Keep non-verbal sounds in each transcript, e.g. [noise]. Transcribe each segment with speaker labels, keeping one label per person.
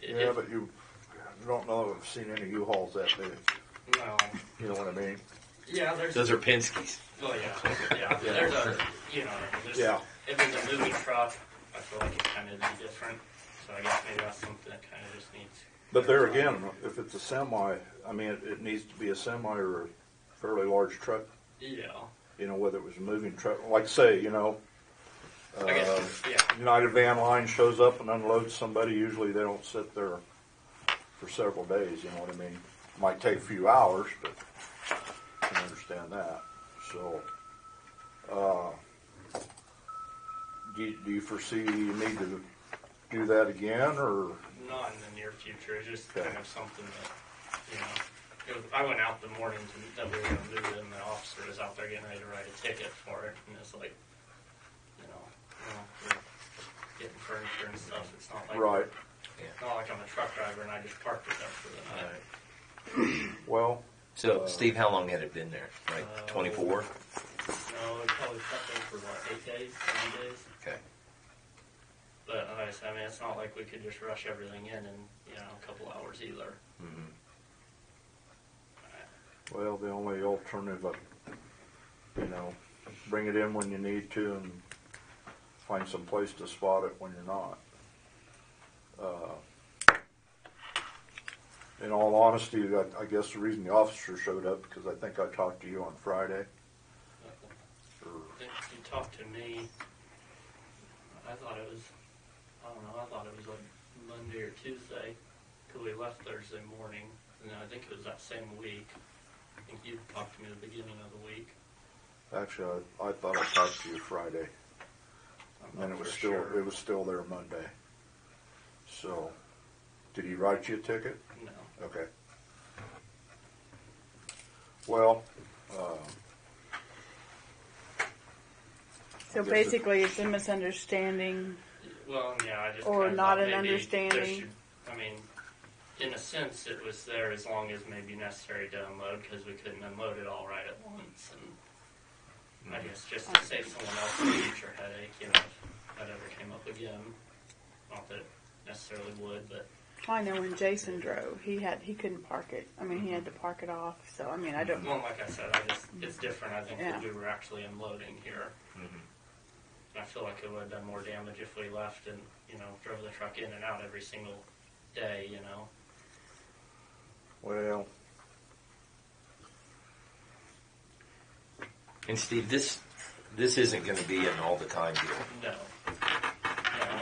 Speaker 1: Yeah, but you you don't know, I've seen any U-Hauls that big,
Speaker 2: No.
Speaker 1: you know what I mean?
Speaker 2: Yeah, there's.
Speaker 3: Those are Penske's.
Speaker 2: Well, yeah, yeah. There's a, you know, I mean, there's,
Speaker 1: Yeah.
Speaker 2: if it's a moving truck, I feel like it kind of is different. So I guess maybe that's something that kind of just needs.
Speaker 1: But there again, if it's a semi, I mean, it, it needs to be a semi or a fairly large truck,
Speaker 2: Yeah.
Speaker 1: you know, whether it was a moving truck, like say, you know,
Speaker 2: I guess.
Speaker 1: uh,
Speaker 2: yeah.
Speaker 1: United Van Line shows up and unloads somebody, usually they don't sit there for several days, you know what I mean? Might take a few hours, but I can understand that, so. uh, Do, you- do you foresee you need to do that again, or,
Speaker 2: Not in the near future. It's just
Speaker 1: Okay.
Speaker 2: kind of something that, you know. it was- I went out the morning to- that we were going to move it, and the officer was out there getting ready to write a ticket for it. And it's like, you know, well, we're getting furniture and stuff. It's not like
Speaker 1: right?
Speaker 2: Not like I'm a truck driver and I just parked it there for the night.
Speaker 1: Well,
Speaker 3: So, Steve, how long had it been there?
Speaker 2: Uh,
Speaker 3: Like 24?
Speaker 2: No, it probably stuck there for what, eight days, nine days?
Speaker 3: Okay.
Speaker 2: But like I said, I mean, it's not like we could just rush everything in in, you know, a couple hours either.
Speaker 3: hmm
Speaker 1: well, the only alternative, uh, you know, bring it in when you need to and find some place to spot it when you're not. Uh, In all honesty, I- I guess the reason the officer showed up, because I think I talked to you on Friday, or
Speaker 2: Did you talk to me? I thought it was, I don't know, I thought it was like Monday or Tuesday, because we left Thursday morning, and then I think it was that same week. I think you talked to me at the beginning of the week.
Speaker 1: Actually, I, I thought I talked to you Friday,
Speaker 2: I'm
Speaker 1: and then
Speaker 2: not
Speaker 1: it was
Speaker 2: for
Speaker 1: still
Speaker 2: sure.
Speaker 1: it was still there Monday. So, did he write you a ticket?
Speaker 2: No.
Speaker 1: Okay. Well, uh,
Speaker 4: So basically, it's a misunderstanding.
Speaker 2: Well, yeah, I just
Speaker 4: Or
Speaker 2: kinda
Speaker 4: not
Speaker 2: thought maybe
Speaker 4: an
Speaker 2: there
Speaker 4: understanding.
Speaker 2: should- I mean, in a sense, it was there as long as maybe necessary to unload because we couldn't unload it all right at once, and I guess just to save someone else a future headache, you know, if that ever came up again. Not that it necessarily would, but
Speaker 4: I know when Jason drove, he had he couldn't park it. I mean, he had to park it off. So I mean, I don't.
Speaker 2: well, like I said, I just it's different. I think
Speaker 4: Yeah.
Speaker 2: that we were actually unloading here. And I feel like it would have done more damage if we left and you know drove the truck in and out every single day, you know.
Speaker 1: well,
Speaker 3: And Steve, this this isn't going to be an all the time deal.
Speaker 2: No. No,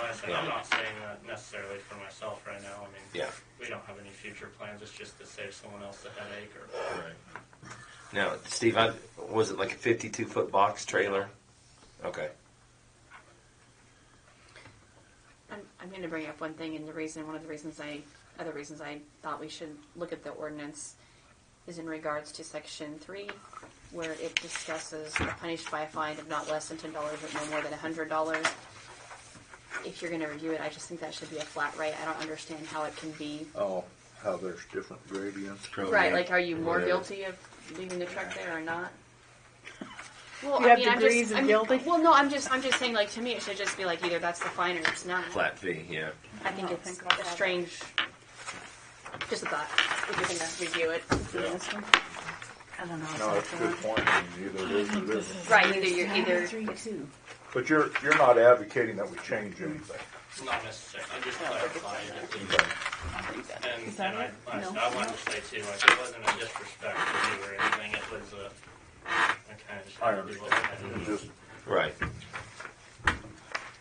Speaker 2: like I said, I'm not saying that necessarily for myself right now. I mean,
Speaker 3: Yeah.
Speaker 2: we don't have any future plans. It's just to save someone else a headache or.
Speaker 3: Right. Now, Steve, I, was it like a 52 foot box trailer? Okay.
Speaker 5: I'm, I'm going to bring up one thing, and the reason, one of the reasons I, other reasons I thought we should look at the ordinance is in regards to section three, where it discusses the punished by a fine of not less than ten dollars, but no more than a hundred dollars. If you're going to review it, I just think that should be a flat rate. I don't understand how it can be.
Speaker 1: oh, how there's different gradients.
Speaker 5: Right, like, are you more
Speaker 1: Yeah.
Speaker 5: guilty of leaving the truck there
Speaker 4: [laughs]
Speaker 5: or not? Well,
Speaker 4: You
Speaker 5: I
Speaker 4: have
Speaker 5: mean, I'm
Speaker 4: degrees
Speaker 5: just,
Speaker 4: of
Speaker 5: I'm,
Speaker 4: guilty?
Speaker 5: well, no, I'm just, I'm just saying, like, to me, it should just be like either that's the fine or it's not.
Speaker 3: Flat fee, yeah.
Speaker 5: I think
Speaker 4: don't
Speaker 5: it's
Speaker 4: think I'll
Speaker 5: a
Speaker 4: have it.
Speaker 5: strange. Just a thought. If you're gonna review it,
Speaker 1: Yeah.
Speaker 4: This one. I don't know.
Speaker 1: No, that's a good point. I mean, Either it is or it isn't.
Speaker 5: right? Either you're either.
Speaker 4: Three two.
Speaker 1: But you're you're not advocating that we change anything.
Speaker 2: Not necessarily. I'm just clarifying. it.
Speaker 4: I think that.
Speaker 2: And,
Speaker 4: Is that
Speaker 2: and I,
Speaker 4: it?
Speaker 2: I,
Speaker 4: No.
Speaker 2: I wanted to say too, like it wasn't a disrespect to you or anything. It was a. I kind of just
Speaker 1: I
Speaker 2: had to do what I had to
Speaker 1: understand. It's
Speaker 2: do.
Speaker 1: just
Speaker 3: Right.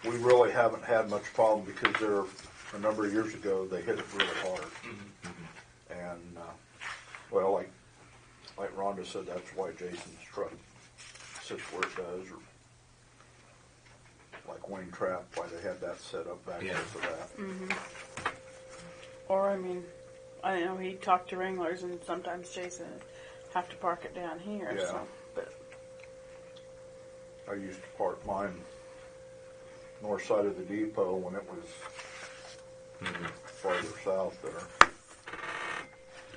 Speaker 1: we really haven't had much problem because there a number of years ago they hit it really hard. And uh, well, like like Rhonda said, that's why Jason's truck sits where it does, or like Wayne Trap, why they had that set up back there
Speaker 3: Yeah.
Speaker 1: for that.
Speaker 4: Or I mean, I know he talked to Wranglers, and sometimes Jason have to park it down here.
Speaker 1: Yeah.
Speaker 4: So, but
Speaker 1: I used to park mine north side of the depot when it was farther south there.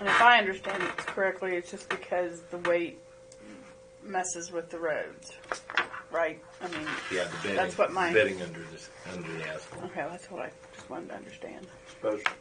Speaker 4: and if I understand it correctly, it's just because the weight messes with the roads, right? I mean,
Speaker 3: Yeah, the bedding.
Speaker 4: That's what my-
Speaker 3: Bedding under, this, under the asphalt.
Speaker 4: okay, that's what I just wanted to understand.
Speaker 1: Especially